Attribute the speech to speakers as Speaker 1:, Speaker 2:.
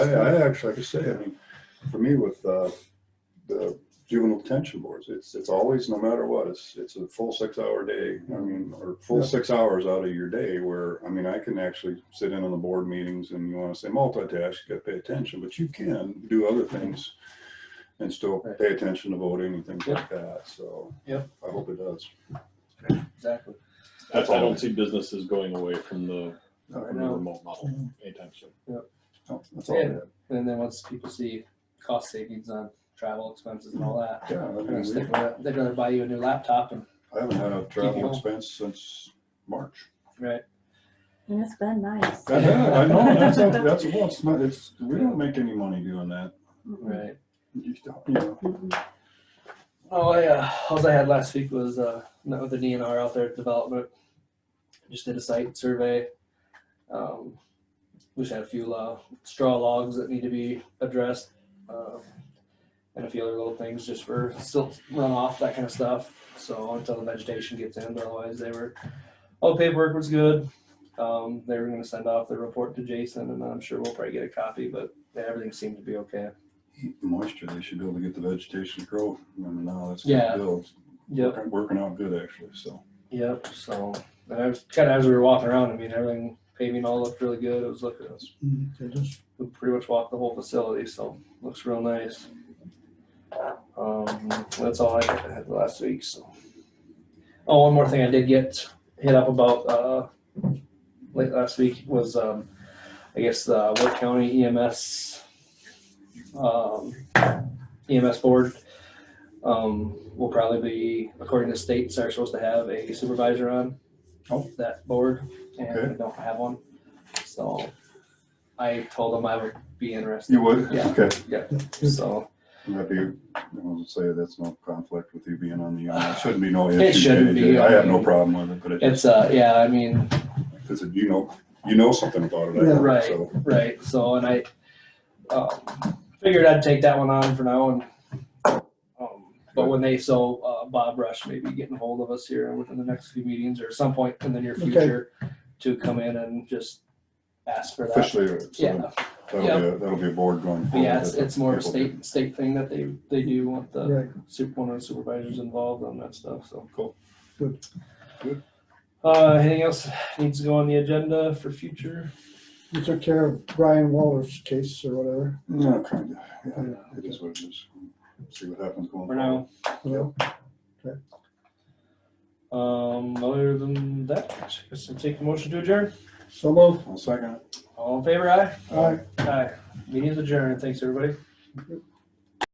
Speaker 1: I, I actually, like I say, I mean, for me with, uh, the juvenile detention boards, it's, it's always, no matter what, it's, it's a full six hour day. I mean, or full
Speaker 2: Yeah.
Speaker 1: six hours out of your day where, I mean, I can actually sit in on the board meetings and you wanna say multitask, you gotta pay attention, but you can do other things and still
Speaker 2: Right.
Speaker 1: pay attention to voting and things like that, so.
Speaker 2: Yep.
Speaker 1: I hope it does.
Speaker 2: Exactly.
Speaker 3: I I don't see businesses going away from the
Speaker 2: All right,
Speaker 3: from the
Speaker 2: now, Mm-hmm.
Speaker 3: remote model anytime soon.
Speaker 1: So, That's all I
Speaker 2: Yeah.
Speaker 1: have.
Speaker 2: and then once people see cost savings on travel expenses and all that,
Speaker 1: Yeah, I
Speaker 2: they're gonna
Speaker 1: mean,
Speaker 2: stick with it. they'd rather buy you a new laptop and,
Speaker 1: we- I haven't had a travel
Speaker 2: Keep going.
Speaker 1: expense since March.
Speaker 2: right,
Speaker 4: And it's been nice.
Speaker 1: I know, I know, that's, that's, well, it's not, it's, we don't make any money doing that.
Speaker 4: Mm-hmm.
Speaker 2: right.
Speaker 1: You don't, you know.
Speaker 4: Mhm.
Speaker 2: Oh, yeah, alls I had last week was, uh, met with an E and R out there at development. Just did a site survey. Um, we just had a few, uh, straw logs that need to be addressed. um, And a few other little things just for silt runoff, that kind of stuff. So until the vegetation gets in, but otherwise they were, all the paperwork was good. Um, they were gonna send off the report to Jason and I'm sure we'll probably get a copy, but yeah, everything seemed to be okay.
Speaker 1: Heat and Moisture, they should be able to get the vegetation to grow, and now that's.
Speaker 2: Yeah. Yep.
Speaker 1: Working out good actually, so.
Speaker 2: Yep, so, and I was, kinda as we were walking around, I mean, everything, paving all looked really good, it was looking, it was- we pretty much walked the whole facility, so, looks real nice. Um, that's all I had last week, so. Oh, one more thing I did get hit up about, uh, late last week was, um, I guess, the Wood County EMS, um, EMS board um, will probably be, according to states, are supposed to have a supervisor on
Speaker 1: Oh.
Speaker 2: that board, and
Speaker 1: Okay.
Speaker 2: we don't have one. So I told them I would be interested,
Speaker 1: You would?
Speaker 2: Yeah.
Speaker 1: Okay.
Speaker 2: so
Speaker 1: And That'd be, I was gonna say, that's no conflict with you being on the, uh, it shouldn't be no issue.
Speaker 2: It shouldn't be,
Speaker 1: JJ. I have
Speaker 2: I
Speaker 1: no
Speaker 2: mean,
Speaker 1: problem with it, but it
Speaker 2: it's,
Speaker 1: just,
Speaker 2: uh, yeah, I mean,
Speaker 1: because you know, you know something about it. I
Speaker 2: Yeah,
Speaker 1: think,
Speaker 2: right.
Speaker 1: so.
Speaker 2: right, so, and I, um, figured I'd take that one on for now, and, um, but when they, so, uh, Bob Rush may be getting hold of us here within the next few meetings, or some point in the near
Speaker 1: Okay.
Speaker 2: future, to come in and just ask for that.
Speaker 1: Officially, so
Speaker 2: Yeah,
Speaker 1: that'll be, a- that'll be a board going.
Speaker 2: But yeah,
Speaker 1: forward
Speaker 2: it's,
Speaker 1: that
Speaker 2: it's more of
Speaker 1: people-
Speaker 2: a state, state thing that they, they do want the
Speaker 5: Right,
Speaker 2: super, one of the supervisors involved on that stuff, so.
Speaker 1: Cool.
Speaker 5: Good.
Speaker 1: Good.
Speaker 2: Uh, anything else needs to go on the agenda for future?
Speaker 5: you took care of Brian Waller's case or whatever.
Speaker 1: No, kind of, yeah,
Speaker 5: Yeah.
Speaker 1: it is what it is. See what happens going. forward.
Speaker 2: For now,
Speaker 5: Well,
Speaker 2: um, other than that, I guess I'll take a motion to adjourn.
Speaker 5: So moved.
Speaker 1: I'll second it.
Speaker 2: All in favor, aye?
Speaker 5: Aye.
Speaker 2: Aye. Meeting is adjourned. Thanks, everybody.